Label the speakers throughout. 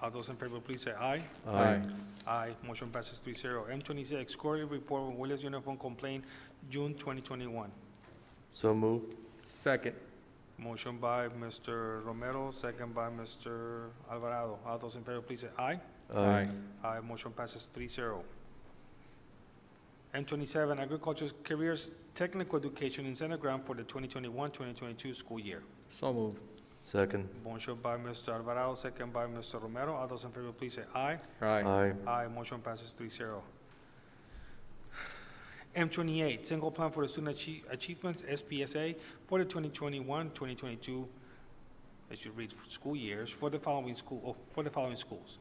Speaker 1: All those in favor, please say aye.
Speaker 2: Aye.
Speaker 1: Aye, motion passes three zero. M twenty-six, quarterly report on Willis Uniform Complaint, June twenty twenty-one.
Speaker 2: So moved.
Speaker 3: Second.
Speaker 1: Motion by Mr. Romero, second by Mr. Alvarado. All those in favor, please say aye. Aye, motion passes three zero. M twenty-seven, Agriculture Careers Technical Education Incentive Grant for the 2021-2022 school year.
Speaker 3: So moved.
Speaker 2: Second.
Speaker 1: Motion by Mr. Alvarado, second by Mr. Romero. All those in favor, please say aye.
Speaker 3: Aye.
Speaker 2: Aye.
Speaker 1: Aye, motion passes three zero. M twenty-eight, single plan for the student Achie- achievements, SPSA, for the 2021-2022. I should read school years, for the following school, oh, for the following schools.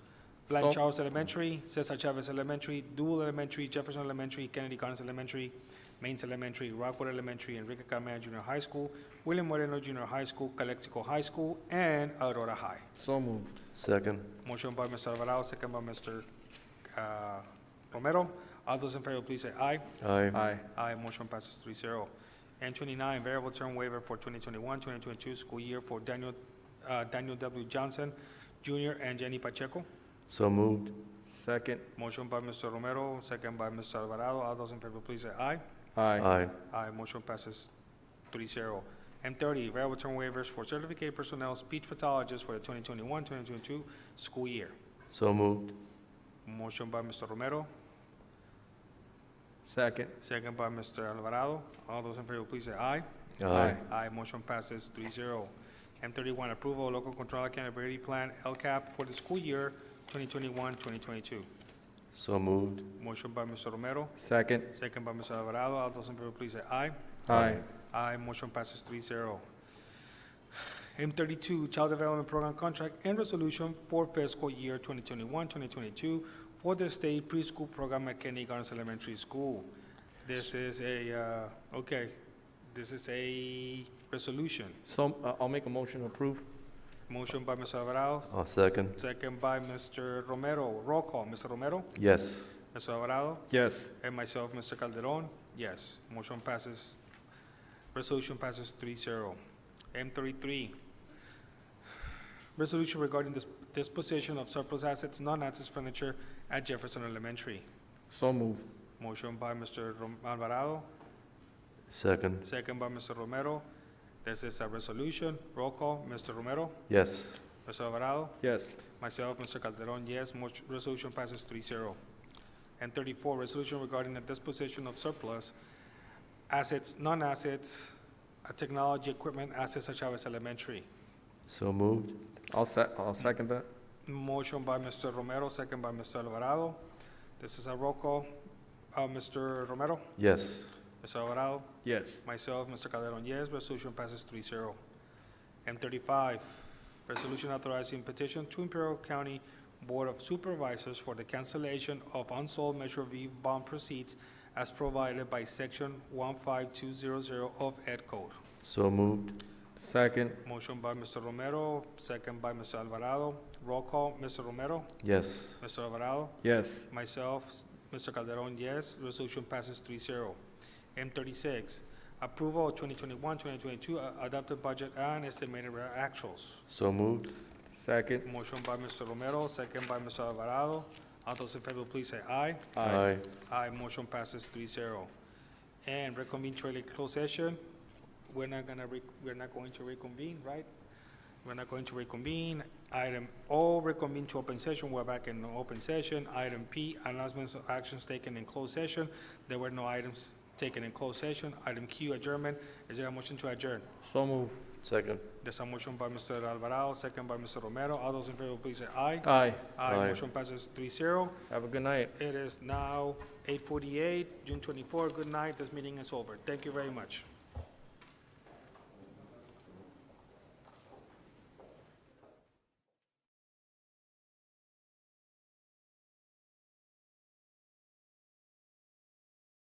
Speaker 1: Blank
Speaker 3: So-
Speaker 1: Charles Elementary, Cesar Chavez Elementary, Dual Elementary, Jefferson Elementary, Kennedy Connors Elementary, Mains Elementary, Rockwood Elementary, Enrique Carmona Junior High School, William Moreno Junior High School, Calexico High School, and Aurora High.
Speaker 3: So moved.
Speaker 2: Second.
Speaker 1: Motion by Mr. Alvarado, second by Mr. uh, Romero. All those in favor, please say aye.
Speaker 2: Aye.
Speaker 3: Aye.
Speaker 1: Aye, motion passes 3-0. And twenty-nine, variable term waiver for 2021-2022 school year for Daniel, uh, Daniel W. Johnson Jr. and Jenny Pacheco.
Speaker 2: So moved.
Speaker 3: Second.
Speaker 1: Motion by Mr. Romero, second by Mr. Alvarado. All those in favor, please say aye.
Speaker 3: Aye.
Speaker 1: Aye, motion passes 3-0. M thirty, variable term waivers for certificated personnel speech pathologists for the 2021-2022 school year.
Speaker 2: So moved.
Speaker 1: Motion by Mr. Romero,
Speaker 3: Second.
Speaker 1: Second by Mr. Alvarado. All those in favor, please say aye. Aye, motion passes three zero. M thirty-one, approval of local control accountability plan, LCAP, for the school year 2021-2022.
Speaker 2: So moved.
Speaker 1: Motion by Mr. Romero,
Speaker 3: Second.
Speaker 1: second by Mr. Alvarado. All those in favor, please say aye.
Speaker 3: Aye.
Speaker 1: Aye, motion passes three zero. M thirty-two, Child Development Program Contract and Resolution for fiscal year 2021-2022 for the state preschool program at Kennedy Gardens Elementary School. This is a, uh, okay, this is a resolution.
Speaker 3: So, uh, I'll make a motion to approve.
Speaker 1: Motion by Mr. Alvarado,
Speaker 2: Uh, second.
Speaker 1: second by Mr. Romero. Roll call, Mr. Romero,
Speaker 2: Yes.
Speaker 1: Mr. Alvarado,
Speaker 3: Yes.
Speaker 1: and myself, Mr. Calderon. Yes, motion passes, resolution passes three zero. M thirty-three, resolution regarding dis- disposition of surplus assets, non-access furniture at Jefferson Elementary.
Speaker 3: So moved.
Speaker 1: Motion by Mr. Rom- Alvarado,
Speaker 2: Second.
Speaker 1: second by Mr. Romero. This is a resolution. Roll call, Mr. Romero,
Speaker 2: Yes.
Speaker 1: Mr. Alvarado,
Speaker 3: Yes.
Speaker 1: Myself, Mr. Calderon, yes. Motion, resolution passes 3-0. And thirty-four, resolution regarding the disposition of surplus assets, non-assets, uh, technology, equipment, assets at Chavez Elementary.
Speaker 2: So moved.
Speaker 3: I'll se, I'll second that.
Speaker 1: Motion by Mr. Romero, second by Mr. Alvarado. This is a roll call. Uh, Mr. Romero,
Speaker 2: Yes.
Speaker 1: Mr. Alvarado,
Speaker 3: Yes.
Speaker 1: myself, Mr. Calderon, yes. Resolution passes 3-0. And thirty-five, resolution authorizing petition to Imperial County Board of Supervisors for the cancellation of unsold Measure V bond proceeds as provided by Section 15200 of Ed Code.
Speaker 2: So moved.
Speaker 3: Second.
Speaker 1: Motion by Mr. Romero, second by Mr. Alvarado. Roll call, Mr. Romero,
Speaker 2: Yes.
Speaker 1: Mr. Alvarado,
Speaker 3: Yes.
Speaker 1: myself, s- Mr. Calderon, yes. Resolution passes 3-0. M thirty-six, approval of 2021-2022 a- adopted budget and estimated re- actuals.
Speaker 2: So moved.
Speaker 3: Second.
Speaker 1: Motion by Mr. Romero, second by Mr. Alvarado. All those in favor, please say aye. Aye, motion passes 3-0. And reconvene to a closed session. We're not gonna, re- we're not going to reconvene, right? We're not going to reconvene. Item O, reconvene to open session. We're back in open session. Item P, announcements of actions taken in closed session. There were no items taken in closed session. Item Q, adjournment. Is there a motion to adjourn?
Speaker 3: So moved.
Speaker 2: Second.
Speaker 1: There's a motion by Mr. Alvarado, second by Mr. Romero. All those in favor, please say aye.
Speaker 3: Aye.
Speaker 1: Aye,
Speaker 2: Aye.
Speaker 1: motion passes three zero.
Speaker 3: Have a good night.
Speaker 1: It is now eight forty-eight, June twenty-four. Good night. This meeting is over. Thank you very much.